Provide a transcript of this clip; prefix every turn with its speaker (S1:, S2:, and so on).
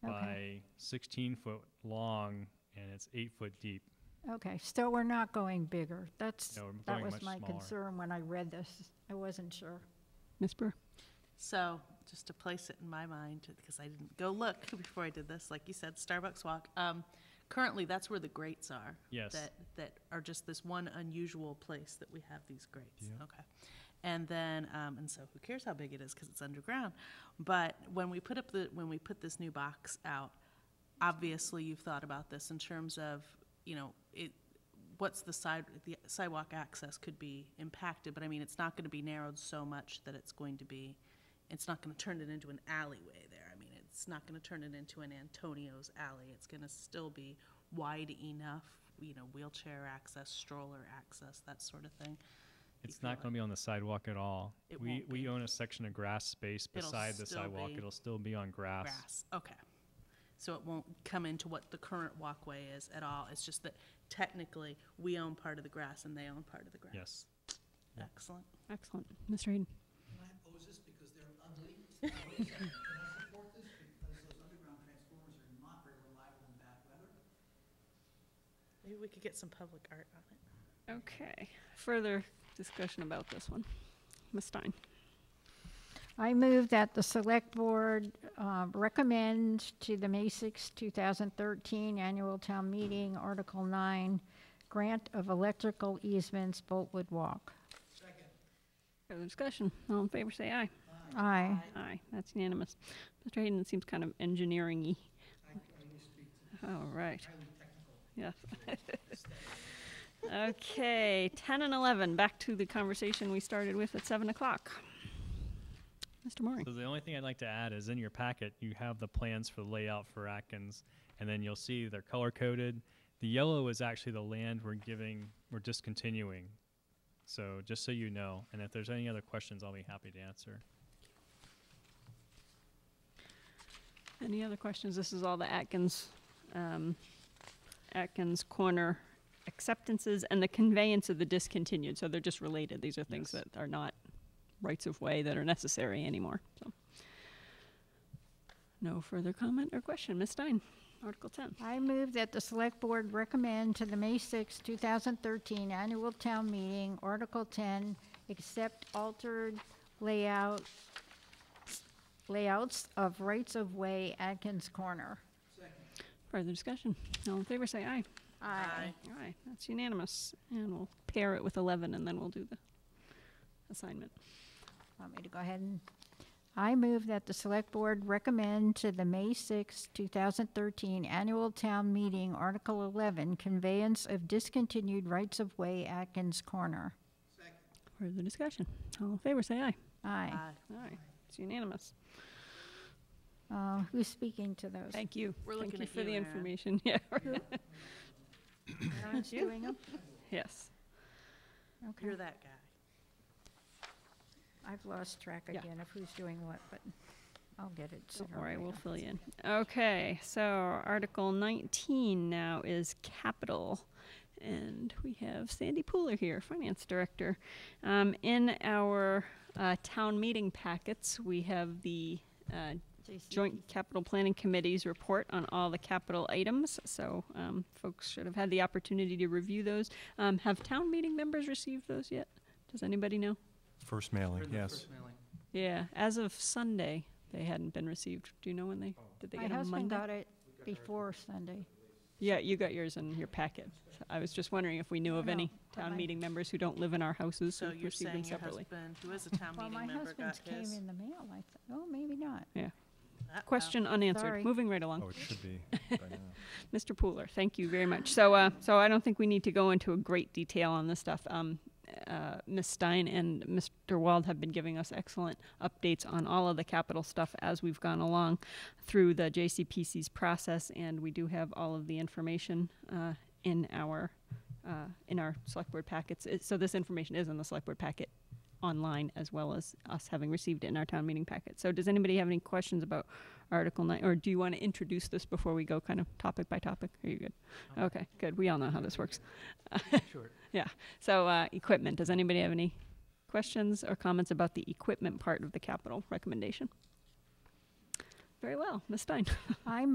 S1: currently 16 foot long and it's eight foot deep.
S2: Okay, so we're not going bigger. That's,
S1: No, we're
S2: that
S1: going
S2: was
S1: much
S2: my
S1: smaller.
S2: concern when I read this. I wasn't sure.
S3: Ms. Brewer?
S4: So, just to place it in my mind, because I didn't go look before I did this, like you said, Starbucks Walk. Um, currently, that's where the grates are.
S1: Yes.
S4: That, that are just this one unusual place that we have these grates. Okay. And then, um, and so who cares how big it is because it's underground? But when we put up the, when we put this new box out, obviously you've thought about this in terms of, you know, it, what's the side, the sidewalk access could be impacted, but I mean, it's not gonna be narrowed so much that it's going to be, it's not gonna turn it into an alleyway there. I mean, it's not gonna turn it into an Antonio's alley. It's gonna still be wide enough, you know, wheelchair access, stroller access, that sort of thing. You
S1: It's
S4: feel
S1: not
S4: like-
S1: going to be on the sidewalk at all.
S4: It
S1: We,
S4: won't
S1: we
S4: be.
S1: own a section of grass space
S4: It'll
S1: beside the
S4: still
S1: sidewalk.
S4: be
S1: It'll still be on grass.
S4: Grass, okay. So it won't come into what the current walkway is at all, it's just that technically, we own part of the grass and they own part of the grass.
S1: Yes.
S4: Excellent.
S3: Excellent. Mr. Hayden?
S5: Can I oppose this because they're ugly? Can I support this because those underground transformers are not very reliable in bad weather?
S4: Maybe we could get some public art on it.
S3: Okay. Further discussion about this one. Ms. Stein?
S2: I move that the select board uh, recommend to the May 6, 2013 annual town meeting, Article 9, grant of electrical easements, Boltwood Walk.
S3: Further discussion. All in favor, say aye.
S2: Aye.
S3: Aye. That's unanimous. Mr. Hayden, it seems kind of engineering-y.
S5: I, I used to be
S3: All right.
S5: highly technical.
S3: Yes. Okay, 10 and 11, back to the conversation we started with at 7 o'clock. Mr. Mooring?
S1: So the only thing I'd like to add is in your packet, you have the plans for the layout for Atkins, and then you'll see they're color coded. The yellow is actually the land we're giving, we're discontinuing. So just so you know, and if there's any other questions, I'll be happy to answer.
S3: Any other questions? This is all the Atkins, um, Atkins Corner acceptances and the conveyance of the discontinued, so they're just related. These are things
S1: Yes.
S3: that are not rights of way that are necessary anymore, so. No further comment or question. Ms. Stein, Article ten.
S2: I move that the select board recommend to the May 6, 2013 annual town meeting, Article 10, accept altered layout, layouts of rights-of-way Atkins Corner.
S3: Further discussion. All in favor, say aye.
S4: Aye.
S3: Aye, that's unanimous. And we'll pair it with eleven and then we'll do the assignment.
S2: Want me to go ahead and, I move that the select board recommend to the May 6, 2013 annual town meeting, Article 11, conveyance of discontinued rights-of-way Atkins Corner.
S3: Further discussion. All in favor, say aye.
S2: Aye.
S4: Aye.
S3: Aye, it's unanimous.
S2: Uh, Who's speaking to those?
S3: Thank you.
S4: We're
S3: Thank
S4: looking
S3: you
S4: at
S3: for
S4: you,
S3: the
S4: Erin.
S3: information. Yeah.
S2: Aaron's doing 'em?
S3: yes.
S2: Okay.
S4: You're that guy.
S2: I've lost track
S3: Yeah.
S2: again of who's doing what, but I'll get it
S3: Don't
S2: sooner or
S3: worry, we'll
S2: later.
S3: fill you in. Okay, so Article 19 now is capital. And we have Sandy Pooler here, Finance Director. Um, in our uh, town meeting packets, we have the uh,
S2: JC.
S3: Joint Capital Planning Committee's report on all the capital items, so um, folks should have had the opportunity to review those. Um, Have town meeting members received those yet? Does anybody know?
S6: First mailing, yes.
S3: Yeah, as of Sunday, they hadn't been received. Do you know when
S4: Oh.
S3: they, did they
S2: My
S3: get them
S2: husband
S3: Monday?
S2: got it before Sunday.
S3: Yeah, you got yours in your packet. So I was just wondering if we knew of
S2: No,
S3: any
S2: but
S3: town
S2: my-
S3: meeting members who don't live in our houses who
S4: So you're
S3: received them
S4: saying your
S3: separately.
S4: husband, who is a town
S2: Well, my
S4: meeting member, got
S2: husband's came
S4: his?
S2: in the mail, I thought, oh, maybe not.
S3: Yeah,
S4: Uh-oh.
S3: question unanswered.
S2: Sorry.
S3: Moving right along.
S6: Oh, it should be by now.
S3: Mr. Pooler, thank you very much. So, uh, so I don't think we need to go into a great detail on this stuff. Um, uh, Ms. Stein and Mr. Wald have been giving us excellent updates on all of the capital stuff as we've gone along through the JCPC's process, and we do have all of the information uh, in our uh, in our select board packets. It, so this information is in the select board packet online as well as us having received it in our town meeting packet. So does anybody have any questions about Article 9, or do you want to introduce this before we go kind of topic by topic? Are you good? Okay, good. We all know how this works.
S5: Sure.
S3: Yeah. So uh, equipment, does anybody have any questions or comments about the equipment part of the capital recommendation? Very well, Ms. Stein.
S2: I